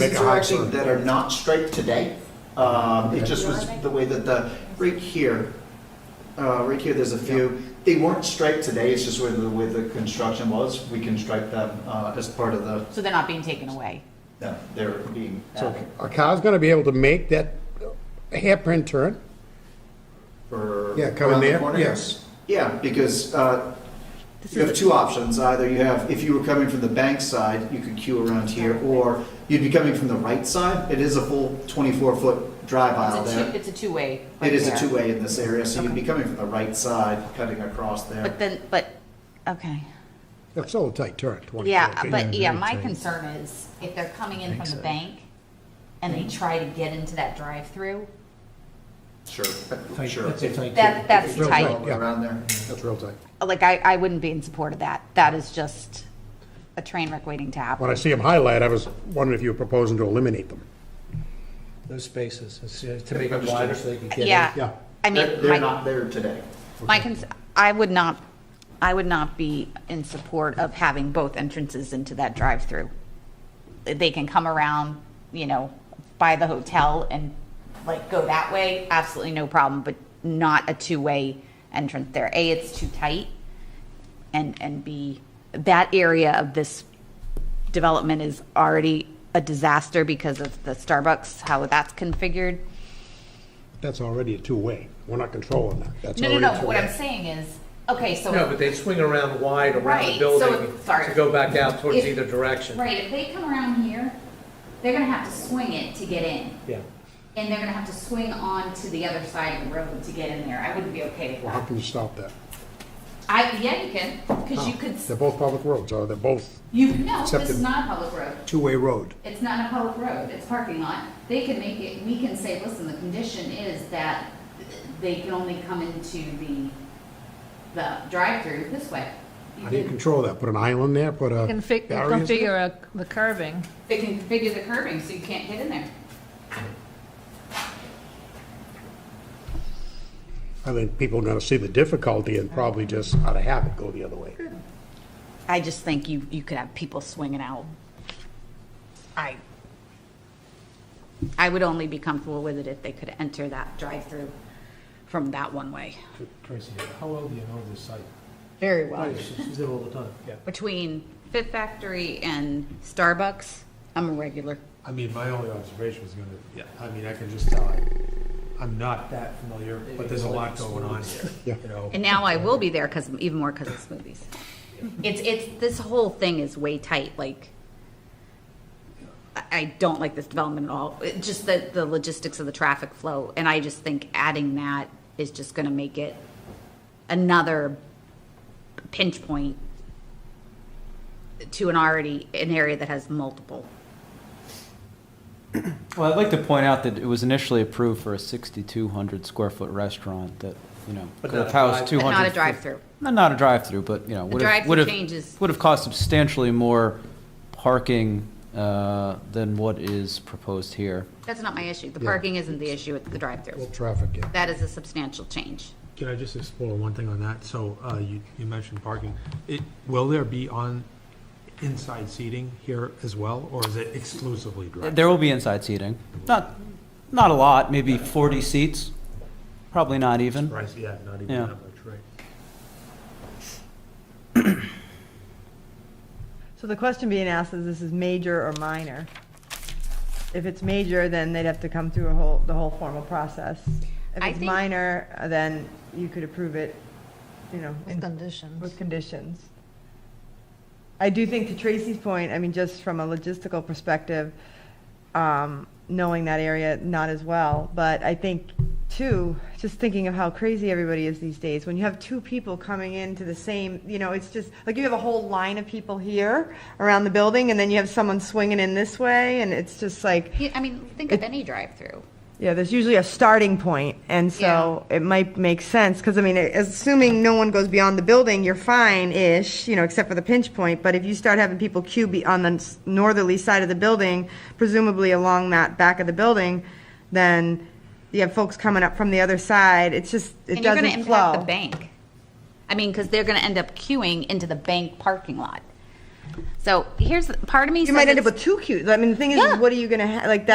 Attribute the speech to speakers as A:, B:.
A: Make a
B: These are
A: hot
B: actually
A: turn.
B: that are not striped today. Um, It just was the way that the, right here, uh, right here, there's a few. They weren't striped today, it's just where the, where the construction was. We can stripe them uh, as part of the,
C: So they're not being taken away.
B: no, they're being
A: So
B: added
A: a car's gonna be able to make that hairpin turn?
B: for.
A: Yeah, come in
B: around the
A: there,
B: corner.
A: yes.
B: Yeah, because uh,
C: This
B: you have
C: is-
B: two options. Either you have, if you were coming from the bank side, you could queue around here, or you'd be coming from the right side. It is a full 24-foot drive aisle
C: It's
B: there.
C: a two, it's a two-way. right
B: It is a
C: there.
B: two-way in this area, so you'd be coming from the right side, cutting across there.
C: But then, but, okay.
A: That's all a tight turn, 24
C: Yeah,
A: feet.
C: but yeah, my concern is if they're coming in from the bank and they try to get into that drive-through,
B: Sure,
D: Tight-
B: sure.
D: That's a tight.
C: that, that's
A: Real
C: tight.
A: tight. Yeah.
B: Around there.
A: That's real tight.
C: Like, I, I wouldn't be in support of that. That is just a train wreck waiting to
A: When
C: happen.
A: I see them highlight, I was wondering if you were proposing to eliminate them.
D: Those spaces, it's, uh, to make it wider so they can get in.
A: yeah.
C: Yeah. I
B: They're
C: mean,
B: they're
C: my,
B: not there today.
C: my, cons- I would not, I would not be in support of having both entrances into that drive-through. They can come around, you know, by the hotel and like go that way, absolutely no problem, but not a two-way entrance there. A, it's too tight, and, and B, that area of this development is already a disaster because of the Starbucks, how that's configured.
A: That's already a two-way. We're not controlling that. That's
C: No, no,
A: already a
C: no, what
A: two-way.
C: I'm saying is, okay, so.
D: No, but they swing around wide around
C: Right,
D: the
C: so
D: building
C: if- sorry.
D: to go back out towards
C: If-
D: either direction.
C: Right, if they come around here, they're gonna have to swing it to get in.
D: Yeah.
C: And they're gonna have to swing on to the other side of the road to get in there. I wouldn't be okay with
A: Well, how
C: that.
A: can you stop that?
C: I, yeah, you can, because you could,
A: They're
C: s-
A: both public roads, or they're both
C: you, no, this
A: Oh, Accepted.
C: is not a public road.
A: two-way road.
C: It's not a public road, it's a parking lot. They could make it, we can say, listen, the condition is that they can only come into the, the drive-through this way.
A: How do you
C: can-
A: control that? Put an island there, put a
E: Can fi-
A: barrier?
E: configure a- the curving.
C: They can configure the curbing so you can't get in there.
A: I think people are gonna see the difficulty and probably just out of habit go the other way.
C: I just think you, you could have people swinging out. I, I would only be comfortable with it if they could enter that drive-through from that one way.
D: Tracy, how well do you know this site? Oh,
C: Very well.
D: She's there all the time. Yeah.
C: Between Fit Factory and Starbucks, I'm a regular.
F: I mean, my only observation was gonna, I mean, I can just tell, I- I'm not that familiar, but there's a lot going on
A: Yeah.
F: here, you know?
C: And now I will be there because, even more because of smoothies. It's, it's, this whole thing is way tight, like, I, I don't like this development at all. It, just the, the logistics of the traffic flow, and I just think adding that is just gonna make it another pinch point to an already, an area that has multiple.
G: Well, I'd like to point out that it was initially approved for a 6,200 square foot restaurant that, you know,
D: But
G: could
D: not a
G: have housed
D: drive-
C: But
G: 200.
C: not a drive-through.
G: Not not a drive-through, but, you know, would have,
C: drive-through
G: would have.
C: changes.
G: Would have cost substantially more parking uh, than what is proposed here.
C: That's not my issue. The
A: Yeah.
C: parking isn't the issue, it's the drive-through.
A: Traffic, yeah.
C: That is a substantial change.
F: Can I just explore one thing on that? So, uh, you, you mentioned parking. It, will there be on inside seating here as well, or is it exclusively direct?
G: There will be inside seating. Not, not a lot, maybe 40 seats, probably not even.
F: Right, yeah, not even
G: Yeah.
F: that much, right?
H: So the question being asked is, this is major or minor? If it's major, then they'd have to come through a whole, the whole formal process. If
C: I
H: it's
C: think-
H: minor, uh, then you could approve it, you know,
E: Conditions.
H: with conditions. I do think to Tracy's point, I mean, just from a logistical perspective, um, knowing that area not as well, but I think too, just thinking of how crazy everybody is these days, when you have two people coming into the same, you know, it's just, like you have a whole line of people here around the building, and then you have someone swinging in this way, and it's just like,
C: Yeah, I mean, think of any drive-through.
H: yeah, there's usually a starting point, and so it might make sense because I mean, assuming no one goes beyond the building, you're fine-ish, you know, except for the pinch point. But if you start having people queue be on the s- northerly side of the building, presumably along that back of the building, then you have folks coming up from the other side. It's just
C: and
H: it
C: you're
H: doesn't
C: going to impact
H: flow.
C: the bank. I mean, because they're going to end up queuing into the bank parking lot. So here's, part of me says
H: You might end up
C: it's-
H: with two queues. I mean, the thing is,
C: Yeah.
H: is what are you gonna, ha- like,